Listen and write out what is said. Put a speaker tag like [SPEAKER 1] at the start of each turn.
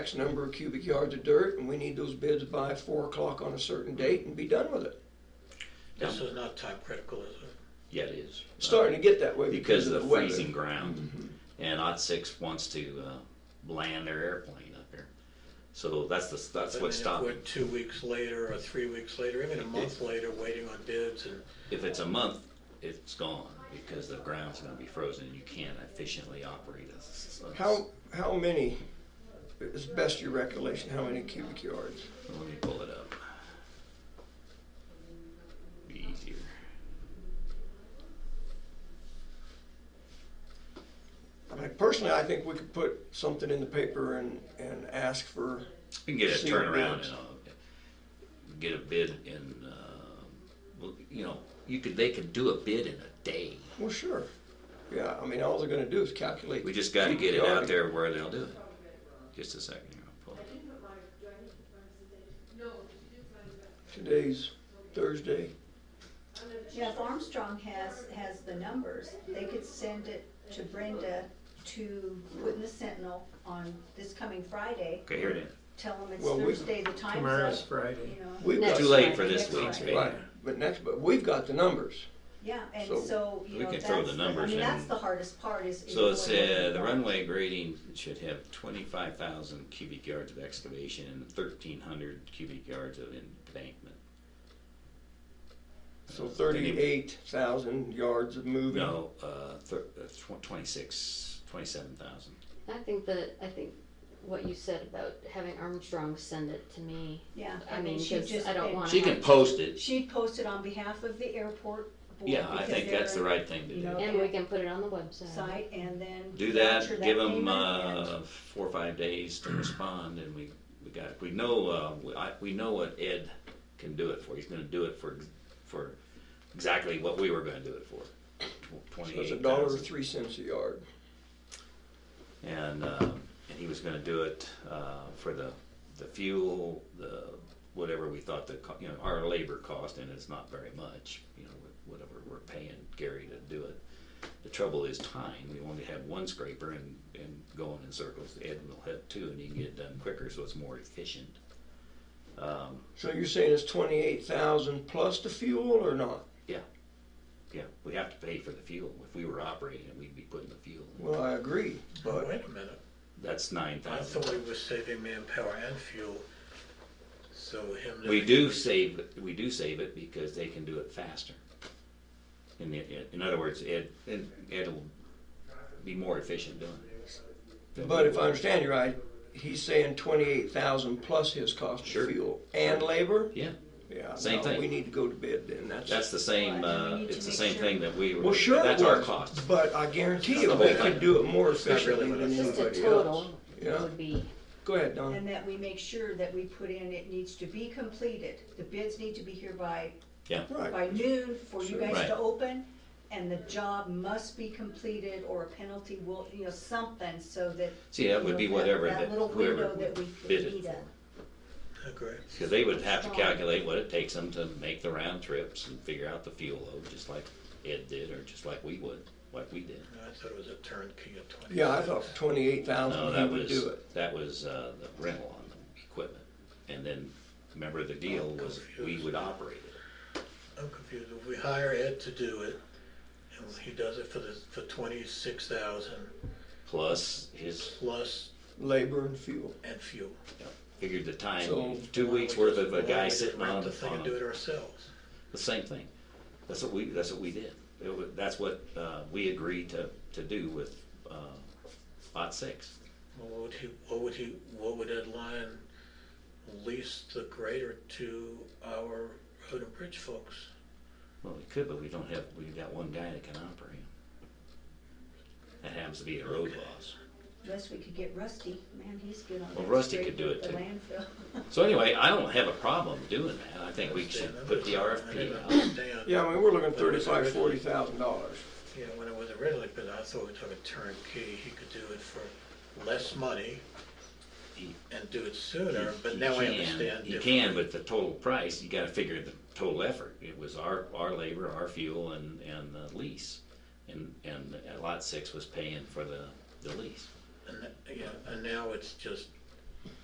[SPEAKER 1] X number of cubic yards of dirt, and we need those bids by four o'clock on a certain date and be done with it.
[SPEAKER 2] This is not time critical, is it?
[SPEAKER 3] Yeah, it is.
[SPEAKER 1] It's Starting to get that way
[SPEAKER 3] Because of the Mm-hmm.
[SPEAKER 1] weather. Mm-hmm.
[SPEAKER 3] freezing ground. And Odd Six wants to, uh, land their airplane up here. So that's the, that's
[SPEAKER 2] I
[SPEAKER 3] what's
[SPEAKER 2] mean, if we're
[SPEAKER 3] stopping.
[SPEAKER 2] Two weeks later or three weeks later, even a month later, waiting on bids and
[SPEAKER 3] If it's a month, it's gone because the ground's gonna be frozen and you can't efficiently operate a s- a-
[SPEAKER 1] How, how many, is best your recollection, how many cubic yards?
[SPEAKER 3] Let me pull it up. Be easier.
[SPEAKER 1] Like personally, I think we could put something in the paper and, and ask for,
[SPEAKER 3] We can get a
[SPEAKER 1] See what
[SPEAKER 3] turnaround
[SPEAKER 1] bids.
[SPEAKER 3] and, uh, get a bid in, uh, well, you know, you could, they could do a bid in a day.
[SPEAKER 1] well, sure. Yeah, I mean, all they're gonna do is calculate.
[SPEAKER 3] We just gotta get it
[SPEAKER 1] cubic
[SPEAKER 3] out
[SPEAKER 1] yard.
[SPEAKER 3] there where they'll do it. Just a second here, I'll pull it.
[SPEAKER 1] Today's Thursday.
[SPEAKER 4] Yeah, if Armstrong has, has the numbers, they could send it to Brenda to put in the Sentinel on this coming Friday.
[SPEAKER 3] Okay, here it is.
[SPEAKER 4] Tell them it's
[SPEAKER 1] Well, we-
[SPEAKER 4] Thursday, the time's up.
[SPEAKER 5] Tomorrow's Friday.
[SPEAKER 4] you know.
[SPEAKER 1] We've got-
[SPEAKER 4] Next
[SPEAKER 1] Too
[SPEAKER 3] late for
[SPEAKER 4] Friday,
[SPEAKER 3] this
[SPEAKER 4] next
[SPEAKER 3] week's
[SPEAKER 4] Friday.
[SPEAKER 5] Yeah.
[SPEAKER 1] Right, but next, but we've got the numbers.
[SPEAKER 4] Yeah, and
[SPEAKER 1] So,
[SPEAKER 4] so,
[SPEAKER 3] we
[SPEAKER 4] you know,
[SPEAKER 3] can
[SPEAKER 4] that's,
[SPEAKER 3] throw the
[SPEAKER 4] the- I
[SPEAKER 3] numbers
[SPEAKER 4] mean,
[SPEAKER 3] in.
[SPEAKER 4] that's the hardest part is. is
[SPEAKER 3] So it's,
[SPEAKER 4] going
[SPEAKER 3] uh,
[SPEAKER 4] over
[SPEAKER 3] the runway grading should have twenty-five thousand cubic yards of excavation and thirteen hundred cubic yards of embankment.
[SPEAKER 1] So
[SPEAKER 3] Uh, then you-
[SPEAKER 1] thirty-eight thousand yards of moving.
[SPEAKER 3] No, uh, thir- uh, tw- twenty-six, twenty-seven thousand.
[SPEAKER 6] I think that I think what you said about having Armstrong send it to me.
[SPEAKER 4] Yeah,
[SPEAKER 6] I mean,
[SPEAKER 4] she
[SPEAKER 6] 'cause
[SPEAKER 4] just-
[SPEAKER 6] I don't want.
[SPEAKER 3] She can post it,
[SPEAKER 4] She'd post it on behalf of the airport board.
[SPEAKER 3] yeah, I
[SPEAKER 4] because
[SPEAKER 3] think that's the
[SPEAKER 4] they're
[SPEAKER 3] right thing to
[SPEAKER 4] you know,
[SPEAKER 3] do.
[SPEAKER 6] And we can put it on the website.
[SPEAKER 4] Site and then.
[SPEAKER 3] Do that,
[SPEAKER 4] voucher
[SPEAKER 3] give them,
[SPEAKER 4] payment and-
[SPEAKER 3] uh, four or five days to respond and we, we got, we know, uh, we, I, we know what Ed can do it for. He's gonna do it for, for exactly what we were gonna do it for.
[SPEAKER 1] So
[SPEAKER 3] Twenty-eight
[SPEAKER 1] it's a
[SPEAKER 3] thousand.
[SPEAKER 1] dollar or three cents a yard.
[SPEAKER 3] and uh, and he was going to do it uh, for the the fuel, the whatever we thought the co- you know our labor cost, and it's not very much, you know, wh- whatever we're paying Gary to do it. The trouble is time. We only have one scraper and and going in circles. Ed will have two, and he can get it done quicker, so it's more efficient. Um,
[SPEAKER 1] So you're saying it's twenty-eight thousand plus the fuel or not?
[SPEAKER 3] yeah, we have to pay for the fuel. If we were operating it, we'd be putting the fuel. In.
[SPEAKER 1] Well, I agree,
[SPEAKER 2] Oh,
[SPEAKER 1] but
[SPEAKER 2] wait a minute,
[SPEAKER 3] That's nine
[SPEAKER 2] I
[SPEAKER 3] thousand.
[SPEAKER 2] thought we were saving manpower and fuel, so him.
[SPEAKER 3] We do save, we do save it because they can do it faster. In, the- in other words, it, it, it'll be more efficient doing it.
[SPEAKER 1] but if I understand you right, he's saying twenty-eight thousand plus his cost
[SPEAKER 3] Sure.
[SPEAKER 1] of fuel and labor.
[SPEAKER 3] Yeah,
[SPEAKER 1] Yeah,
[SPEAKER 3] Same
[SPEAKER 1] no,
[SPEAKER 3] thing.
[SPEAKER 1] We need to go to bid then. That's,
[SPEAKER 3] that's the same,
[SPEAKER 4] Well, and
[SPEAKER 3] uh,
[SPEAKER 4] we need to
[SPEAKER 3] it's the
[SPEAKER 4] make
[SPEAKER 3] same
[SPEAKER 4] sure-
[SPEAKER 3] thing that we were.
[SPEAKER 1] well, sure. it
[SPEAKER 3] That's our
[SPEAKER 1] was,
[SPEAKER 3] cost.
[SPEAKER 1] But I guarantee you,
[SPEAKER 3] That's the
[SPEAKER 1] we
[SPEAKER 3] whole thing.
[SPEAKER 1] could do it more
[SPEAKER 2] not really
[SPEAKER 1] efficiently
[SPEAKER 2] what
[SPEAKER 1] than
[SPEAKER 2] it's-
[SPEAKER 1] anybody
[SPEAKER 6] Just a
[SPEAKER 1] else.
[SPEAKER 6] total
[SPEAKER 1] Yeah.
[SPEAKER 6] would be.
[SPEAKER 1] Go ahead, Don.
[SPEAKER 4] And that we make sure that we put in, it needs to be completed, the bids need to be here by,
[SPEAKER 1] Right.
[SPEAKER 4] by noon for you
[SPEAKER 1] Sure.
[SPEAKER 4] guys
[SPEAKER 3] Right.
[SPEAKER 4] to open, and the job must be completed, or a penalty will, you know, something, so that.
[SPEAKER 3] See, that would be
[SPEAKER 4] you know,
[SPEAKER 3] whatever
[SPEAKER 4] That
[SPEAKER 3] that,
[SPEAKER 4] little
[SPEAKER 3] whoever
[SPEAKER 4] window that we could
[SPEAKER 3] bid it
[SPEAKER 4] meet
[SPEAKER 3] for.
[SPEAKER 4] at.
[SPEAKER 2] Agree.
[SPEAKER 3] Cause they would have to calculate what it takes them to make the round trips and figure out the fuel load, just like Ed did, or just like we would, like we did.
[SPEAKER 2] I thought it was a turnkey of twenty.
[SPEAKER 1] Yeah, I thought twenty-eight
[SPEAKER 3] No,
[SPEAKER 1] thousand he
[SPEAKER 3] that
[SPEAKER 1] would
[SPEAKER 3] was,
[SPEAKER 1] do it.
[SPEAKER 3] that was uh, the rental on the equipment. And then, remember the deal was we would operate it.
[SPEAKER 2] I'm confused, if we hire Ed to do it, and he does it for the, for twenty-six thousand
[SPEAKER 3] Plus his,
[SPEAKER 2] plus
[SPEAKER 1] Labor and fuel.
[SPEAKER 2] and fuel.
[SPEAKER 3] figured the time,
[SPEAKER 1] So-
[SPEAKER 3] two weeks worth of a
[SPEAKER 2] uh, Why don't
[SPEAKER 3] guy
[SPEAKER 2] we just
[SPEAKER 3] sitting
[SPEAKER 2] rent
[SPEAKER 3] on,
[SPEAKER 2] The thing and
[SPEAKER 3] on
[SPEAKER 2] do it ourselves.
[SPEAKER 3] the same thing. That's what we, that's what we did. It wa- That's what uh, we agreed to, to do with uh, Lot Six.
[SPEAKER 2] Well, What would he, what would he, what would Ed Lyon lease the grader to our road and bridge folks?
[SPEAKER 3] Well, we could, but we don't have, we've got one guy that can operate. That happens to be the road boss.
[SPEAKER 4] Unless we could get Rusty, man, he's good on that.
[SPEAKER 3] Well, Rusty
[SPEAKER 4] straight
[SPEAKER 3] could do
[SPEAKER 4] with
[SPEAKER 3] it,
[SPEAKER 4] the
[SPEAKER 3] too.
[SPEAKER 4] landfill.
[SPEAKER 3] So anyway, I don't have a problem doing that. I think we should put the
[SPEAKER 2] I didn't
[SPEAKER 3] RFP out.
[SPEAKER 2] understand.
[SPEAKER 1] Yeah, I mean, we're looking at
[SPEAKER 2] But was it
[SPEAKER 1] thirty-five,
[SPEAKER 2] written-
[SPEAKER 1] forty thousand dollars.
[SPEAKER 2] Yeah, when it was originally, but I thought we took a turnkey, he could do it for less money
[SPEAKER 3] He-
[SPEAKER 2] and do it sooner, but
[SPEAKER 3] You
[SPEAKER 2] now I
[SPEAKER 3] can-
[SPEAKER 2] understand.
[SPEAKER 3] You
[SPEAKER 2] differently.
[SPEAKER 3] can, but the total price, you gotta figure the total effort. It was our, our labor, our fuel and, and the lease. And, and lot six was paying for the, the lease.
[SPEAKER 2] And, that- yeah, and now it's just